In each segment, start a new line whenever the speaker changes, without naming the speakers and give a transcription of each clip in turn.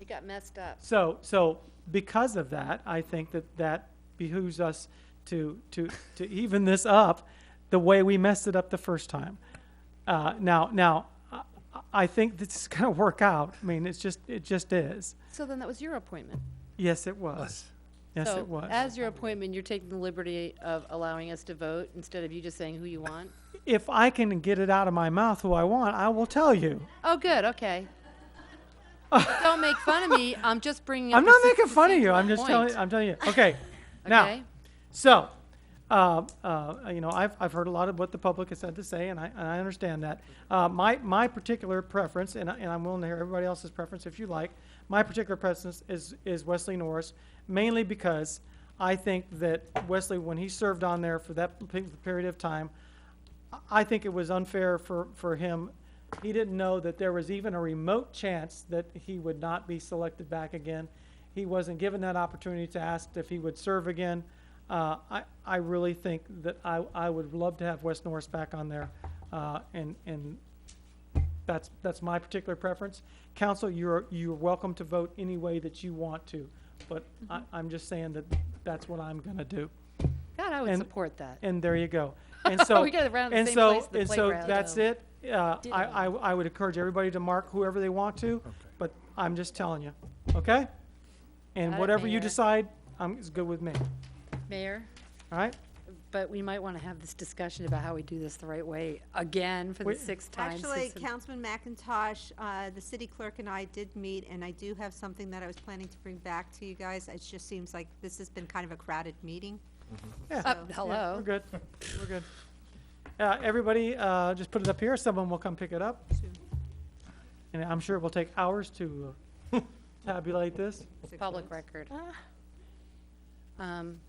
It got messed up.
So, so because of that, I think that that behooves us to, to, to even this up the way we messed it up the first time. Uh, now, now, I- I think this is gonna work out. I mean, it's just, it just is.
So then that was your appointment.
Yes, it was. Yes, it was.
So as your appointment, you're taking the liberty of allowing us to vote instead of you just saying who you want?
If I can get it out of my mouth who I want, I will tell you.
Oh, good, okay. Don't make fun of me. I'm just bringing up.
I'm
the
not
six-
making
the
fun of
same
you. I'm just telling,
point,
I'm telling you. Okay. Now,
okay?
So, uh, uh, you know, I've, I've heard a lot of what the public has had to say, and I, and I understand that. Uh, my, my particular preference, and, I, and I'm willing to hear everybody else's preference if you like, my particular preference is, is Wesley Norris, mainly because I think that Wesley, when he served on there for that p- period of time, I- I think it was unfair for, for him. He didn't know that there was even a remote chance that he would not be selected back again. He wasn't given that opportunity to ask if he would serve again. Uh, I, I really think that I, I would love to have Wes Norris back on there, uh, and, and that's, that's my particular preference. Council, you're, you're welcome to vote any way that you want to, but I, I'm just saying that that's what I'm gonna do.
God, I would
and-
support that.
And there you go. And so,
We gotta round the
and
same
so,
place, the
and so
playground.
that's it. Uh,
Ditto.
I, I, I would encourage everybody to mark whoever they want to, but I'm just telling you, okay?
Got
And
it,
whatever you
Mayor.
decide, um, is good with me,
Mayor,
all right?
but we might want to have this discussion about how we do this the right way again for the
Wait.
sixth time.
Actually,
since-
Councilman McIntosh, uh, the city clerk and I did meet, and I do have something that I was planning to bring back to you guys. It just seems like this has been kind of a crowded meeting.
Yeah,
Uh,
So-
yeah,
Hello?
we're good, we're good. Uh, everybody, uh, just put it up here, someone will come pick it up, and I'm sure it will take hours to uh, tabulate this.
Public record. Um,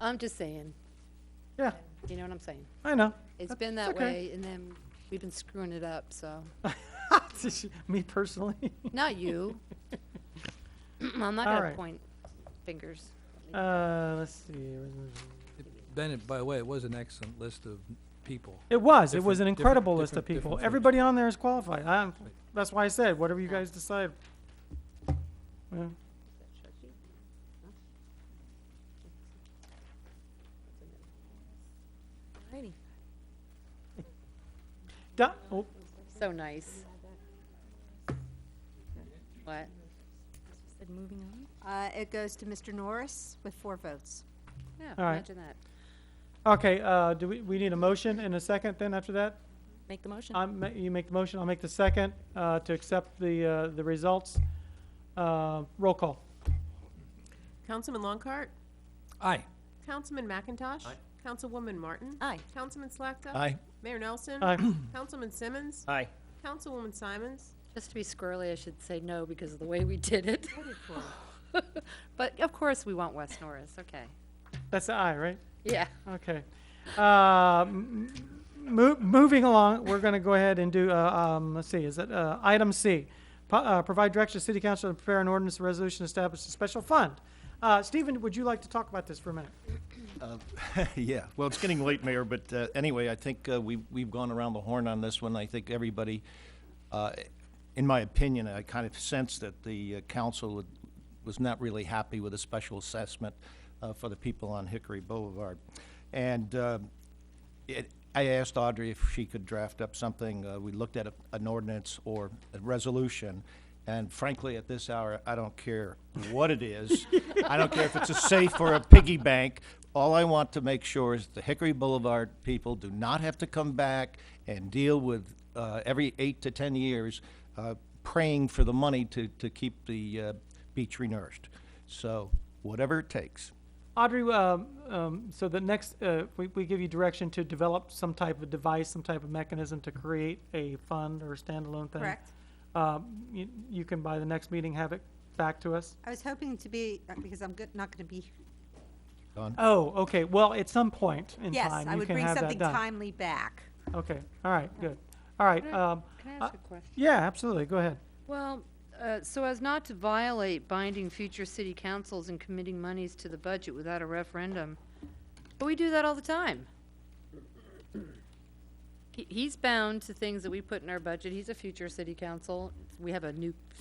I'm just saying,
Yeah,
you know what I'm saying?
I know.
It's
That-
been
it's
that
okay.
way, and then we've been screwing it up, so,
Me personally.
not you. I'm not
All
gonna
right.
point fingers.
Uh, let's see.
Bennett, by the way, it was an excellent list of people.
It was. It was
Different-
an
different-
incredible list of
different- different
people.
folks.
Everybody on there is qualified. I, that's why I said, whatever you guys decide. Yeah. Di- oh,
So nice. What?
Uh, It goes to Mr. Norris with four votes.
Yeah,
All right.
imagine that.
Okay, uh, do we, we need a motion and a second then after that?
Make the motion.
I'm, ma- you make the motion, I'll make the second, uh, to accept the, uh, the results. Uh, roll call.
Councilman Longcart?
Aye.
Councilman McIntosh? Councilwoman Martin?
Aye.
Councilman Slakta? Mayor Nelson?
Aye.
Councilman Simmons?
Aye.
Councilwoman Simons?
Just to be squirrely, I should say no because of the way we did it. But of course, we want West Norris, okay.
That's the aye, right?
Yeah.
Okay. Uh, m- mo- Moving along, we're going to go ahead and do, uh, um, let's see, is it uh, item C? Po- uh, Provide direction to City Council to prepare an ordinance resolution to establish a special fund. Uh, Stephen, would you like to talk about this for a minute?
Yeah, well, it's getting late, Mayor, but uh, anyway, I think uh, we've, we've gone around the horn on this one. I think everybody, uh, in my opinion, I kind of sense that the uh, council would- was not really happy with the special assessment uh, for the people on Hickory Boulevard. And uh, it, I asked Audrey if she could draft up something. Uh, we looked at a, an ordinance or a resolution, and frankly, at this hour, I don't care what it is. I don't care if it's a safe or a piggy bank. All I want to make sure is the Hickory Boulevard people do not have to come back and deal with uh, every eight to 10 years uh, praying for the money to, to keep the uh, beach renourished. So, whatever it takes.
Audrey, um, um, so the next, uh, we we give you direction to develop some type of device, some type of mechanism to create a fund or standalone thing.
Correct.
Um, you- You can, by the next meeting, have it back to us?
I was hoping to be, uh, because I'm good- not going to be.
Don?
Oh, okay, well, at some point in
Yes,
time,
I
you
would
can
bring
have that done.
something timely back.
Okay, all right, good. All right, um,
Can I
uh,
ask a question?
yeah, absolutely, go ahead.
Well, uh, so as not to violate binding future city councils and committing monies to the budget without a referendum, but we do that all the time. He- He's bound to things that we put in our budget. He's a future city council. We have a new